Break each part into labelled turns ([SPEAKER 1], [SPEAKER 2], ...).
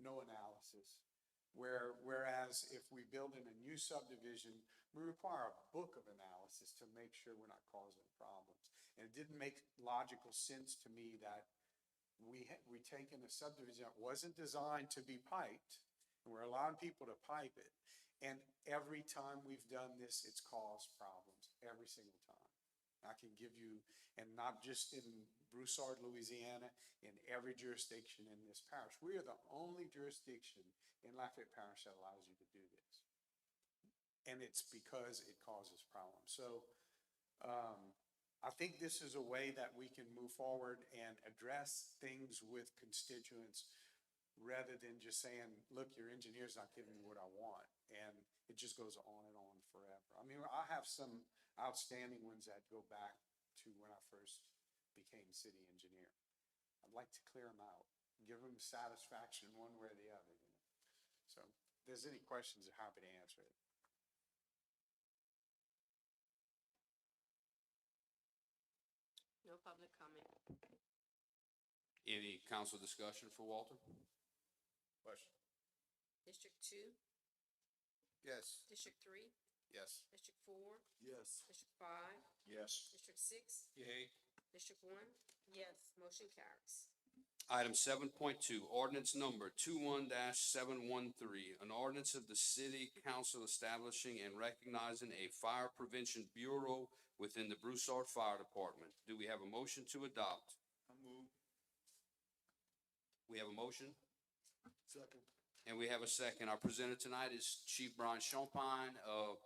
[SPEAKER 1] no analysis. Where, whereas if we build in a new subdivision, we require a book of analysis to make sure we're not causing problems. And it didn't make logical sense to me that we had, we taken a subdivision that wasn't designed to be piped, and we're allowing people to pipe it. And every time we've done this, it's caused problems, every single time. I can give you, and not just in Broussard, Louisiana, in every jurisdiction in this parish. We are the only jurisdiction in Lafayette Parish that allows you to do this. And it's because it causes problems. So, um, I think this is a way that we can move forward and address things with constituents rather than just saying, look, your engineer's not giving me what I want. And it just goes on and on forever. I mean, I have some outstanding ones that go back to when I first became city engineer. I'd like to clear them out, give them satisfaction one way or the other. you know. So if there's any questions, I'm happy to answer it.
[SPEAKER 2] No public comment.
[SPEAKER 3] Any council discussion for Walter?
[SPEAKER 4] Question.
[SPEAKER 2] District two,
[SPEAKER 4] Yes.
[SPEAKER 2] district three,
[SPEAKER 4] Yes.
[SPEAKER 2] district four,
[SPEAKER 4] Yes.
[SPEAKER 2] district five,
[SPEAKER 4] Yes.
[SPEAKER 2] district six,
[SPEAKER 3] Yay.
[SPEAKER 2] district one? Yes. Motion carries.
[SPEAKER 3] Item seven point two, ordinance number two seven one three, an ordinance of the city council establishing and recognizing a fire prevention bureau within the Broussard Fire Department. Do we have a motion to adopt?
[SPEAKER 4] I move.
[SPEAKER 3] We have a motion
[SPEAKER 4] Second.
[SPEAKER 3] and we have a second. Our presenter tonight is Chief Brian Champagne of.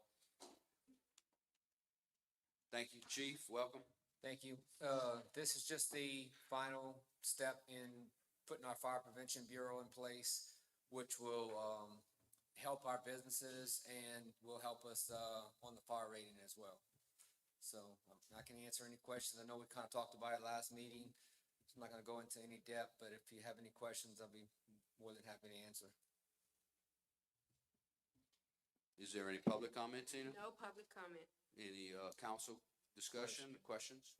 [SPEAKER 3] Thank you, chief. Welcome.
[SPEAKER 5] Thank you. Uh, this is just the final step in putting our fire prevention bureau in place, which will, um, help our businesses and will help us, uh, on the fire rating as well. So um, I can answer any questions. I know we kind of talked about it last meeting. So I'm not gonna go into any depth, but if you have any questions, I'll be more than happy to answer.
[SPEAKER 3] Is there any public comment, Tina?
[SPEAKER 2] No public comment.
[SPEAKER 3] Any, uh, council discussion, questions?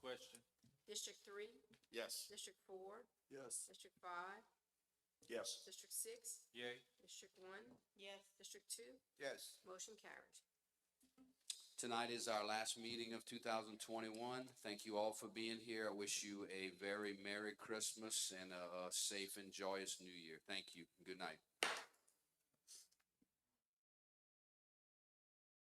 [SPEAKER 4] Question.
[SPEAKER 2] District three,
[SPEAKER 4] Yes.
[SPEAKER 2] district four,
[SPEAKER 4] Yes.
[SPEAKER 2] district five,
[SPEAKER 4] Yes.
[SPEAKER 2] district six,
[SPEAKER 4] Yay.
[SPEAKER 2] district one? Yes. District two?
[SPEAKER 4] Yes.
[SPEAKER 2] Motion carries.
[SPEAKER 3] Tonight is our last meeting of two thousand twenty-one. Thank you all for being here. I wish you a very Merry Christmas and a, a safe and joyous New Year. Thank you. Good night.